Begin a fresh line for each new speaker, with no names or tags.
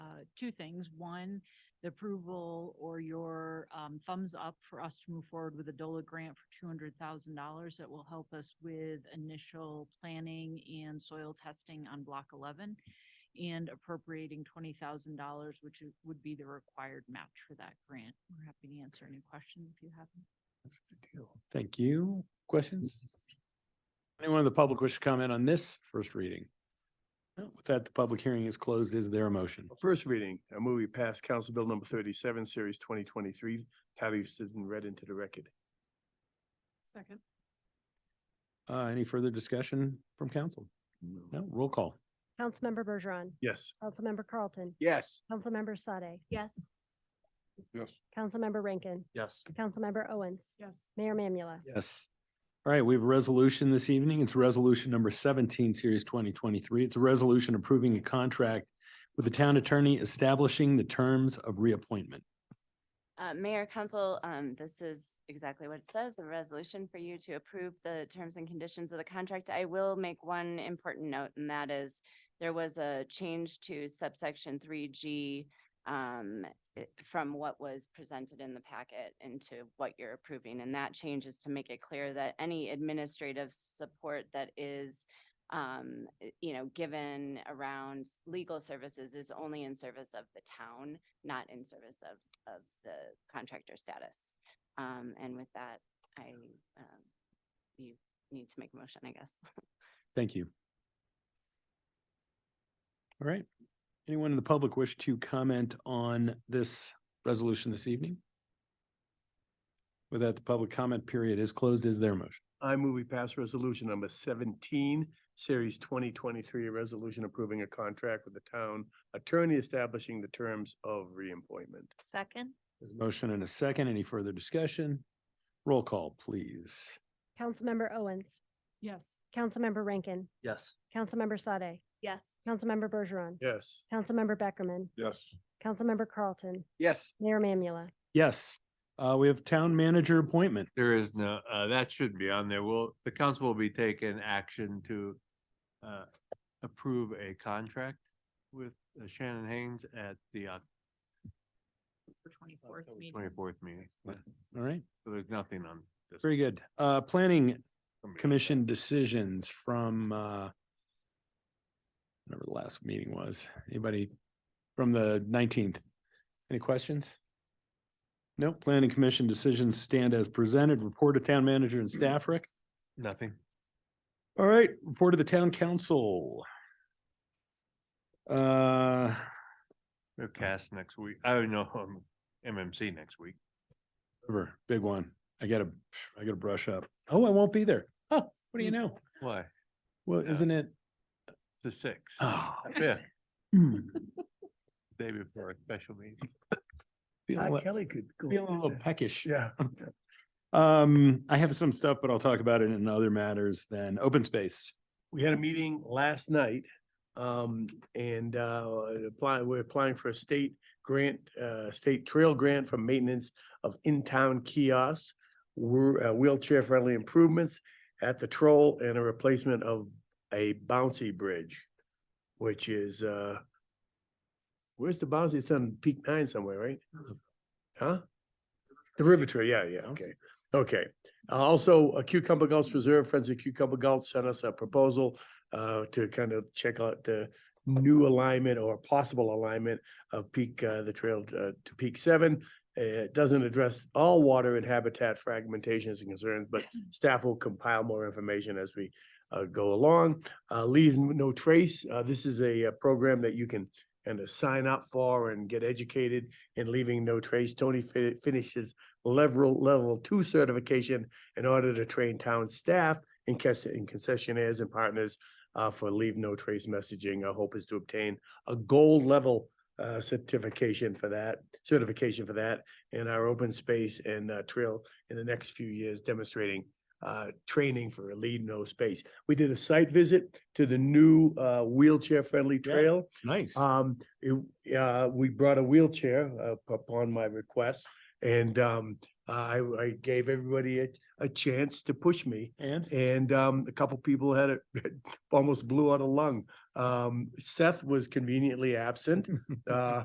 uh, two things. One, the approval or your um, thumbs up for us to move forward with a DOLA grant for two hundred thousand dollars that will help us with initial planning and soil testing on block eleven and appropriating twenty thousand dollars, which i- would be the required match for that grant. We're happy to answer any questions if you have. them.
Thank you. Questions? Anyone in the public wish to comment on this first reading? No, With that, the public hearing is closed. Is there a motion?
First reading, a movie passed Council Bill number thirty-seven, series twenty twenty-three, title stood and read into the record.
Second.
Uh, any further discussion from council? No, roll call.
Councilmember Bergeron,
Yes.
Councilmember Carlton,
Yes.
Councilmember Sade,
Yes.
Yes.
Councilmember Rankin,
Yes.
Councilmember Owens,
Yes.
Mayor Mamula.
Yes. All right, we have a resolution this evening. It's resolution number seventeen, series twenty twenty-three. It's a resolution approving a contract with the town attorney establishing the terms of reappointment.
Uh, Mayor, Council, um, this is exactly what it says, a resolution for you to approve the terms and conditions of the contract. I will make one important note, and that is there was a change to subsection three G um, i- from what was presented in the packet into what you're approving. And that change is to make it clear that any administrative support that is um, i- you know, given around legal services is only in service of the town, not in service of of the contractor status. Um, and with that, I, um, you need to make a motion, I guess.
Thank you. All right. Anyone in the public wish to comment on this resolution this evening? With that, the public comment period is closed. Is there a motion?
I move we pass resolution number seventeen, series twenty twenty-three, a resolution approving a contract with the town attorney establishing the terms of reappointment.
Second?
There's a Motion and a second. Any further discussion? Roll call, please.
Councilmember Owens,
Yes.
Councilmember Rankin,
Yes.
Councilmember Sade,
Yes.
Councilmember Bergeron,
Yes.
Councilmember Beckerman,
Yes.
Councilmember Carlton,
Yes.
Mayor Mamula.
Yes, uh, we have town manager appointment.
There is no, uh, that should be on there. Will, the council will be taking action to uh, approve a contract with uh, Shannon Haynes at the Oc-
For twenty-fourth meeting.
Uh, twenty-fourth meeting.
Right. All right,
So there's nothing on this.
very good. Uh, planning
Somebody else.
commission decisions from uh whatever the last meeting was. Anybody from the nineteenth? Any questions? No, planning commission decisions stand as presented, report of town manager and staff, Rick.
Nothing.
All right, report of the town council. Uh,
They're cast next week. I don't know, um, MMC next week.
River, big one. I gotta, I gotta brush up. Oh, I won't be there. Oh, what do you know?
Hmm. Why?
Well,
Yeah.
isn't it?
The sixth.
Oh.
Yeah,
hmm,
day before a special meeting.
feeling a li-
Kelly could. go
feeling a
with
little
that.
peckish.
Yeah.
Um, I have some stuff, but I'll talk about it in other matters than open space.
we had a meeting last night. Um, and, uh, applying, we're applying for a state grant, uh, state trail grant for maintenance of in-town kiosks. We're, uh, wheelchair-friendly improvements at the troll and a replacement of a bouncy bridge, which is, uh, where's the bouncy? It's on Peak Nine somewhere, right? Huh? The River Trail, yeah, yeah, okay, okay. Uh, Also, uh, Cucumber Gulch Preserve, Friends of Cucumber Gulch sent us a proposal uh, to kind of check out the new alignment or possible alignment of peak, uh, the trail to to peak seven. Uh, It doesn't address all water and habitat fragmentations and concerns, but staff will compile more information as we uh, go along. Uh, Leaves No Trace, uh, this is a uh, program that you can kind of sign up for and get educated in leaving no trace. Tony fi- finishes level, level two certification in order to train town staff and cas- and concessionaires and partners uh, for leave no trace messaging. Our hope is to obtain a gold level uh, certification for that, certification for that in our open space and uh, trail in the next few years demonstrating uh, training for a leave no space. We did a site visit to the new uh, wheelchair-friendly
Yeah.
trail.
Nice.
Um, it- uh, we brought a wheelchair up- upon my request and, um, I, I gave everybody a, a chance to push me.
And
And, um, a couple people had it, almost blew out a lung. Um, Seth was conveniently absent. Uh,